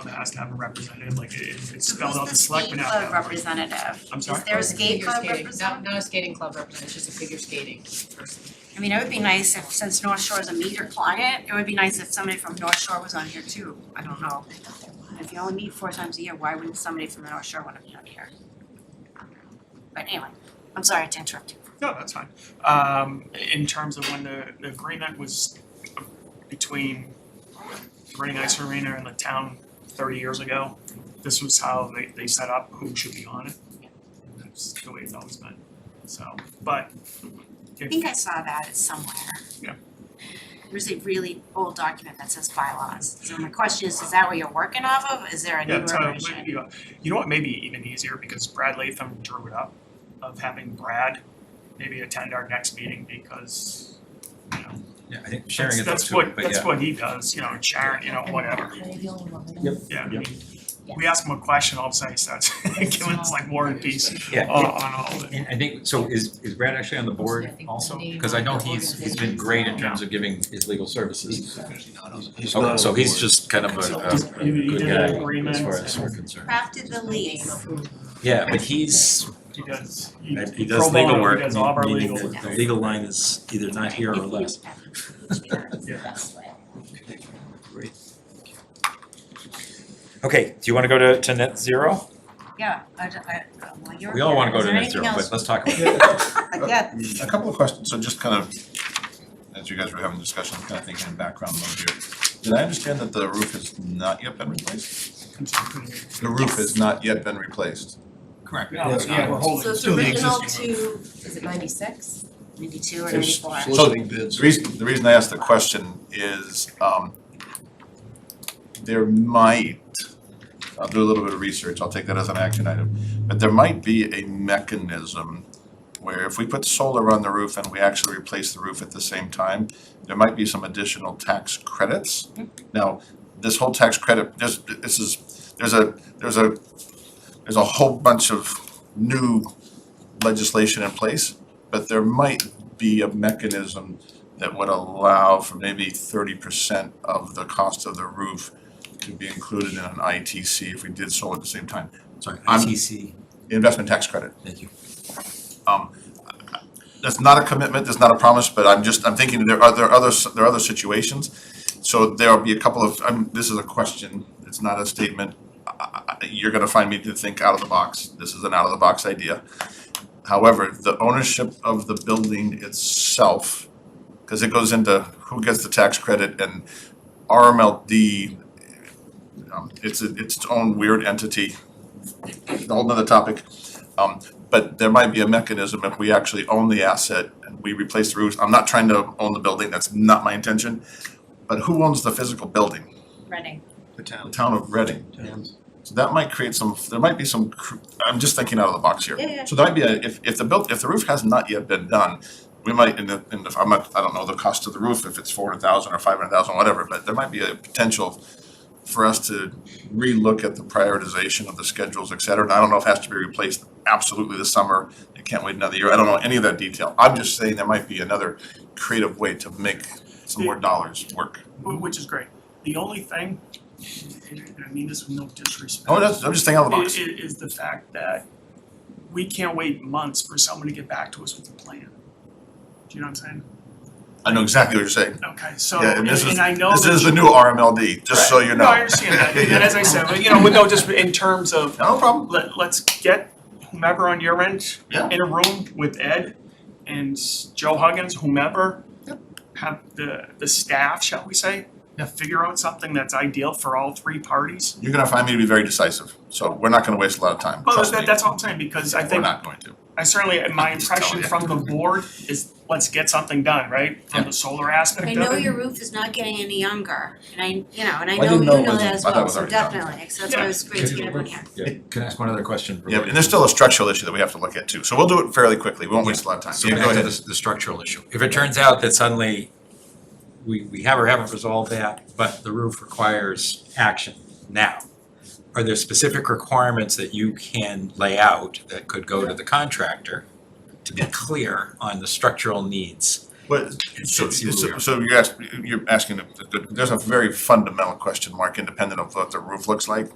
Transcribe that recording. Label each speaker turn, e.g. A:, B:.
A: club has to have a representative, like it it's
B: So
A: spelled out the
B: who's the
A: selectmen
B: skate
A: have to have
B: club
A: one.
B: representative?
A: I'm
B: Is
A: sorry,
B: there a skate
C: Figure
B: club
C: skating, not
B: representative?
C: not a skating club representative, it's just a figure skating person.
B: I mean, it would be nice if, since North Shore is a meter client, it would be nice if somebody from North Shore was on here too, I don't know. If you only meet four times a year, why wouldn't somebody from the North Shore wanna be on here? But anyway, I'm sorry to interrupt you.
A: No, that's fine. Um, in terms of when the, the agreement was between Running Ice Arena and the town thirty years ago, this was how they, they set up who should be on it. That's the way it's always been, so, but
B: I
A: if,
B: think I saw that it's somewhere.
A: Yeah.
B: There's a really old document that says bylaws, so my question is, is that what you're working off of, is there a
A: yeah,
B: newer version?
A: so, you know, you know what, maybe even easier, because Brad Latham drew it up, of having Brad maybe attend our next meeting because, you know,
D: Yeah, I think sharing
A: that's,
D: is up
A: that's
D: to it,
A: what,
D: but
A: that's
D: yeah,
A: what he does, you know, Sharon, you know, whatever. Yeah, I mean, we ask him a question, all of a sudden he starts giving us like war and peace
D: yeah.
A: on on all of it.
D: And I think, so is is Brad actually on the
C: I
D: board
C: think
D: also?
C: the name
D: Cause I know
C: of the
D: he's he's been great in terms of giving his legal services.
E: He's
D: Okay,
E: not
D: so
E: on
D: he's
E: board.
D: just kind of a a a
A: You- you
D: uh, good
A: did an
D: guy
A: agreement
D: as far as
A: and-
D: we're concerned.
B: Crafted the
C: Name
B: lease.
C: of who.
D: Yeah, but he's, uh,
A: He does, he
D: he
A: pro
D: does legal
A: bono,
D: work,
A: he does all of our
D: meaning
A: legal
D: that
A: work.
D: the legal line is either not here or less. Okay, do you wanna go to to net zero?
B: Yeah, I, I, well, you're.
D: We all wanna
B: here.
D: go
B: Is
D: to
B: there
D: net zero,
B: anything else?
D: but let's talk about it.
B: Yeah,
E: Uh, A couple of questions, so just kind of, as you guys were having discussions, kind of thinking in background mode here. Did I understand that the roof has not yet been replaced? The roof has not yet been replaced.
F: Correct.
A: No, yeah, we're holding.
C: So it's
F: Still the
C: original
F: existing
C: to, is it ninety-six?
B: maybe two or maybe
E: There's
B: four.
E: soliciting bids. The reason, the reason I asked the question is, um, there might, I'll do a little bit of research, I'll take that as an action item, but there might be a mechanism where if we put solar on the roof and we actually replace the roof at the same time, there might be some additional tax credits. Now, this whole tax credit, this, this is, there's a, there's a, there's a whole bunch of new legislation in place, but there might be a mechanism that would allow for maybe thirty percent of the cost of the roof to be included in an ITC if we did solar at the same time,
D: Sorry,
E: I'm-
D: ITC,
E: investment tax credit.
D: thank you.
E: Um, that's not a commitment, that's not a promise, but I'm just, I'm thinking there are, there are other, there are other situations. So there'll be a couple of, I'm, this is a question, it's not a statement. I- I- You're gonna find me to think out of the box, this is an out of the box idea. However, the ownership of the building itself, cause it goes into who gets the tax credit and RMLD, um, it's, a- it's its own weird entity, a whole nother topic. Um, but there might be a mechanism if we actually own the asset and we replace the roofs. I'm not trying to own the building, that's not my intention. But who owns the physical building?
B: Running.
F: The
E: The
F: town.
E: town of Reading. So that might create some, there might be some, cr- I'm just thinking out of the box here.
B: Yeah, yeah.
E: So there might be, a- if, if the built, if the roof has not yet been done, we might, in the, in the, I'm not, I don't know the cost of the roof, if it's four hundred thousand or five hundred thousand, whatever, but there might be a potential for us to relook at the prioritization of the schedules, et cetera. And I don't know if it has to be replaced absolutely this summer. It can't wait another year. I don't know any of that detail. I'm just saying there might be another creative way to make some more dollars work.
A: Wh- Which is great. The only thing, and I mean, this is no disrespect.
E: Oh, that's, I'm just thinking out of the box.
A: i- i- is the fact that we can't wait months for someone to get back to us with a plan. Do you know what I'm saying?
E: I know exactly what you're saying.
A: Okay, so,
E: Yeah,
A: and
E: and this is-
A: and I know that.
E: This is the new RMLD, just so you know.
A: No, I understand that, and as I said, but, you know, with no, just in terms of,
E: No problem.
A: let, let's get whomever on your end
E: Yeah.
A: in a room with Ed and Joe Huggins, whomever.
E: Yep.
A: Have the, the staff, shall we say?
E: Yeah.
A: Figure out something that's ideal for all three parties.
E: You're gonna find me to be very decisive, so we're not gonna waste a lot of time,
A: Well,
E: trust me.
A: that, that's all I'm saying, because I
E: We're
A: think,
E: not going to.
A: I certainly, my
E: I'm just telling
A: impression
E: you.
A: from the board is, let's get something done, right? From
E: Yeah.
A: the solar aspect of
B: I
A: it.
B: know your roof is not getting any younger, and I, you know, and I
E: I
B: know you
E: didn't know it
B: know
E: was-
B: that as
E: I thought it
B: well,
E: was
B: so
E: already done.
B: definitely, so that's why it was great to get everyone here.
D: Yeah, can I ask one other question?
E: Yeah, and there's still a structural issue that we have to look at too, so we'll do it fairly quickly, we won't waste a lot of time.
D: So
E: Yeah,
D: back
E: go
D: to
E: ahead.
D: the, the structural issue. If it turns out that suddenly we, we have or haven't resolved that, but the roof requires action now, are there specific requirements that you can lay out that could go to the contractor to be clear on the structural needs?
E: But so
D: see where we
E: so
D: are.
E: so you're asking, you're asking, a- there's a very fundamental question mark, independent of what the roof looks like.